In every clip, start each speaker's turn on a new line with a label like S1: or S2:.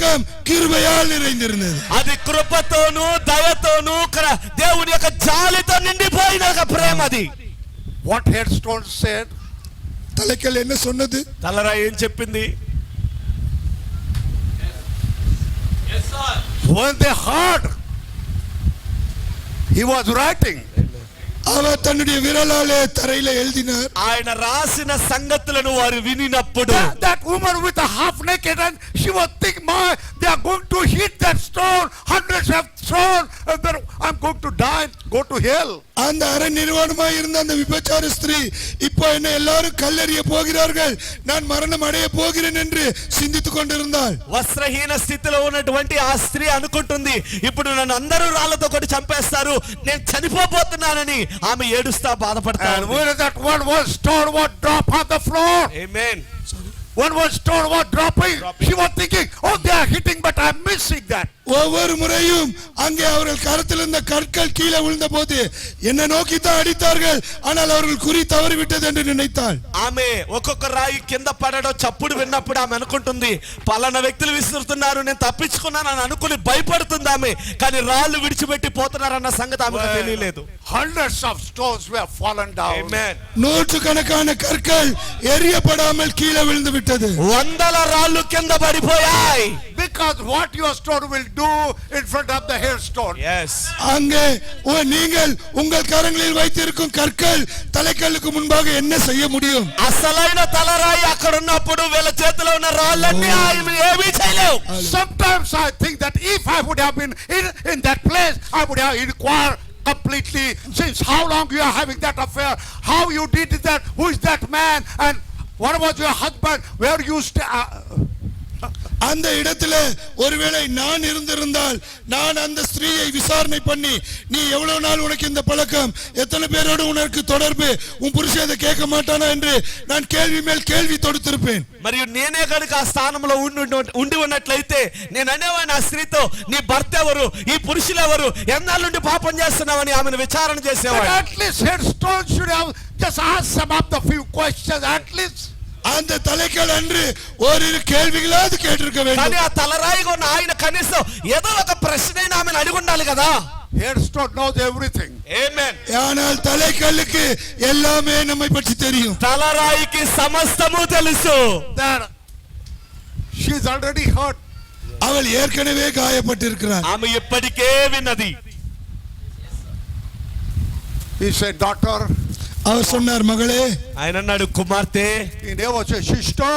S1: పరలోకం కిరుబయాలు நிறைந்திருந்தது
S2: అది కృపతోను దయతోను క్ర- దేవుని యొక్క జాలితో నిండిపోయిన ఒక ప్రేమ అది
S3: What headstone said,
S1: தலைக்கல் என்ன சொன்னது
S2: తలరా ఏం చెప్పింది
S3: when they heard, he was writing.
S1: அவர் தன்னுடைய விரலாலே தரையில எழுதினார்
S2: ఆయన రాసిన సంగతులను వారు వినినప్పుడు
S3: That, that woman with a half naked and she was thinking, my, they are going to hit that stone, hundreds of stone, and then I'm going to die, go to hell.
S1: அந்த அரை நிர்வாணமாய் இருந்த அந்த விபச்சார ஸ்திரீ இப்போ என்ன எல்லாரும் கல்லெறிய போகிறார்கள் நான் மரணம் அடைய போகிறேன் என்று சிந்தித்துக் கொண்டிருந்தாள்
S2: వస్త్రహీన స్థితిలో ఉన్నటువంటి ఆ స్త్రీ అనుకుంటుంది ఇప్పుడు నన్ను అందరూ రాళ్లతో కొట్టి చంపేస్తారు నేను చనిపోబోతున్నానని ఆమె ఏడుస్తా
S3: And
S2: బాధపడతాను
S3: when that one was stone was drop on the floor, one was stone was dropping, she was thinking, oh, they are hitting, but I'm missing that.
S1: ஒவ்வொரு முறையும் அங்கே அவர்கள் கரத்தில் இருந்த கற்கள் கீழே விழுந்த போது என்ன நோக்கி தான் அடித்தார்கள் ஆனால் அவர்கள் குறி தவறிவிட்டது என்று நினைத்தாள்
S2: ఆమె ఒక్కొక్క రాయి కింద పడడం చప్పుడు విన్నప్పుడు ఆమె అనుకుంటుంది పలానా వ్యక్తులు విసురుతున్నారు నేను తప్పించుకున్నానని అనుకుని భయపడుతుంది ఆమె కానీ రాళ్ళు విడిచిపెట్టి పోతున్నారన్న సంగతి ఆమెకు తెలియలేదు
S3: Hundreds of stones were fallen down.
S1: நூற்று కనకాన கற்கள் எரியப்படாமல் కీలే விழுந்து విட்டது
S2: వందల రాళ్ళు కింద పడిపోయాయి
S3: Because what your stone will do in front of the hailstone.
S1: அங்கே உ- நீங்கள் உங்கள் கரங்களில் வைத்திருக்கும் கற்கள் தலைக்கல்லுக்கு முன்பாக என்ன செய்ய முடியும்
S2: అసలైన తలరాయి అక్కడ ఉన్నప్పుడు వీళ్ళ చేతిలో ఉన్న రాళ్ళన్నీ ఆయన ఏమీ చేయలేవు
S3: Sometimes I think that if I would have been in, in that place, I would have inquired completely since how long you are having that affair, how you did that, who is that man, and what was your husband, where you uh, stay.
S1: அந்த இடத்துல ஒருவேளை நான் இருந்திருந்தால் நான் அந்த ஸ்திரீயை விசாரணை பண்ணி நீ எவ்வளவு நாள் உனக்கு இந்த பழக்கம் எத்தனை பேரோடு உனக்கு தொடர்பு உன் புருஷன் அதை கேட்க மாட்டானா என்று நான் கேள்வி மேல் கேள்வி தொடுத்திருப்பேன்
S2: మరియు నేనే కనుక ఆ స్థానంలో ఉండి ఉండి- ఉండి ఉన్నట్లయితే నేను అనేవాడిని ఆ స్త్రీతో నీ భర్త ఎవరు ఈ పురుషులు ఎవరు ఎన్నాళ్ళ నుండి పాపం చేస్తున్నావని ఆమెను విచారణ
S3: But
S2: చేసేవాడు
S3: at least headstone should have just asked some of the few questions, at least.
S1: அந்த தலைக்கல் அன்று ஓரிரு கேள்விகளாவது கேட்டிருக்க
S2: కానీ
S1: வேண்டும்
S2: ఆ తలరాయిగా ఉన్న ఆయన కనీసం ఏదో ఒక ప్రశ్నైనా ఆమెను అడిగి ఉండాలి కదా
S3: Headstone knows everything.
S2: ఏమేన్
S1: ஆனால் தலைக்கல்லுக்கு எல்லாமே நம்மை பற்றி தெரியும்
S2: తలరాయికి సమస్తము తెలుసు
S3: That she's already hurt.
S1: அவள் ஏற்கனவே காயப்பட்டிருக்கிறாள்
S2: ఆమె ఇప్పటికే విన్నది
S3: He said, daughter,
S1: அவர் சொன்னார் மகளே
S2: ఆయన అన్నాడు కుమార్తె
S3: he never said, sister,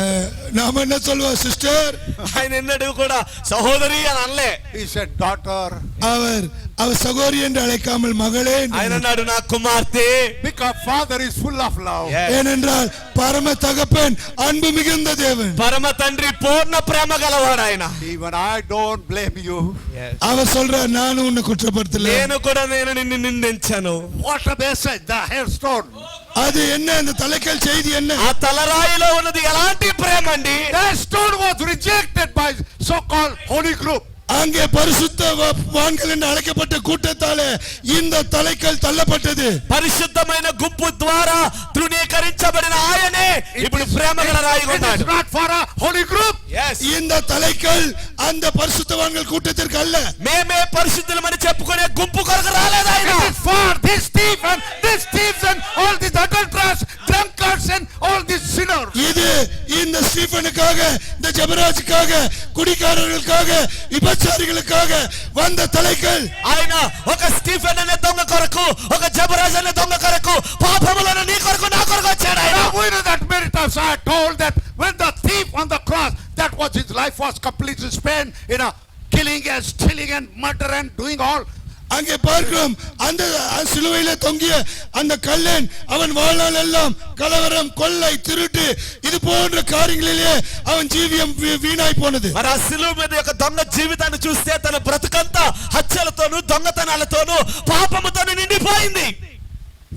S1: அஹ், நாம என்ன சொல்வோம் சிஸ்டர்
S2: ఆయన ఎన్నడూ కూడా సహోదరి అని అనలే
S3: he said, daughter.
S1: அவர் அவர் சகோரி என்று அழைக்காமல் மகளே என்று
S2: ఆయన అన్నాడు నా కుమార్తె
S3: Because father is full of love.
S1: ஏனென்றால் பரம தகப்பன் அன்பு மிகுந்த தேவன்
S2: పరమ తండ్రి పూర్ణ ప్రేమ గలవాడు ఆయన
S3: Even I don't blame you.
S1: அவர் சொல்றார் நானும் உன்னை குற்றப்படுத்தல
S2: నేను కూడా నేను నిన్ను నిందించాను
S3: What a message, the hailstone.
S1: அது என்ன அந்த தலைக்கல் செய்தி என்ன
S2: ఆ తలరాయిలో ఉన్నది ఎలాంటి ప్రేమ అండి
S3: The hailstone was rejected by so-called holy group.
S1: அங்கே பரிசுத்த வா- வான்கள் என்று அழைக்கப்பட்ட கூட்டத்தாலே இந்த தலைக்கல் தள்ளப்பட்டது
S2: పరిశుద్ధమైన గుంపు ద్వారా తృణీకరించబడిన ఆయనే ఇప్పుడు ప్రేమ గల రాయిగా
S3: It is
S2: ఉన్నాడు
S3: not for a holy group.
S1: இந்த தலைக்கல் அந்த பரிசுத்தவான்கள் கூட்டத்திற்கு அல்ல
S2: మేమే పరిశుద్ధులమని చెప్పుకునే గుంపు కొరకు రాలేదు ఆయన
S3: It is for this thief and this thieves and all these adulterers, drunkards and all these sinners.
S1: இது இந்த ஸ்டீஃபனுக்காக இந்த ஜெபராஜுக்காக குடிகாரர்களுக்காக விபச்சாரிகளுக்காக வந்த தலைக்கல்
S2: ఆయన ఒక స్టీఫెన్ అనే దొంగ కొరకు ఒక జబరాజ్ అనే దొంగ కొరకు పాపములను నీ కొరకు నా కొరకు వచ్చాడు ఆయన
S3: Now we know that many times I told that when the thief on the cross, that was his life was completely spent in a killing and stealing and murder and doing all
S1: அங்கே பார்க்கிறோம் அந்த சிலுவையில தொங்கிய அந்த கல்லன் அவன் வாழ்நாள் எல்லாம் கலவரம் கொள்ளை திருட்டு இது போன்ற காரியங்களிலே அவன் ஜீவியம் வீ- வீணாய் போனது
S2: మరి ఆ సిలువ మీద యొక్క దొంగ జీవితాన్ని చూస్తే తన బ్రతుకంతా హత్యలతోనూ దొంగతనాలతోనూ పాపముతోనూ నిండిపోయింది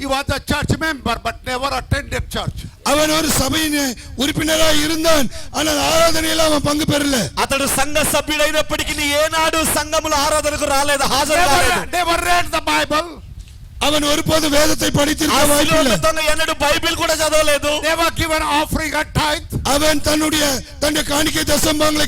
S3: He was a church member but never attended church.
S1: அவன் ஒரு சபையின் உறுப்பினராய் இருந்தான் ஆனால் ஆராதனையில அவன் பங்கு பெறல
S2: అతడు సంఘ సభ్యుడైనప్పటికీ ఏనాడు సంఘముల ఆరాధనకు రాలేదు హాజరు
S3: Never,
S2: కాలేదు
S3: never read the Bible,
S1: அவன் ఒరుపోదు వేదத்தை
S2: ఆ
S1: படித்திருக்க
S2: సిలువ మీద
S1: வாய்ப்பில்லை
S2: దొంగ ఎన్నడూ బైబిల్ కూడా చదవలేదు
S3: never given offering a tithe.
S1: அவன் தன்னுடைய தன்னுடைய காணிக்கை தசம்பாங்களை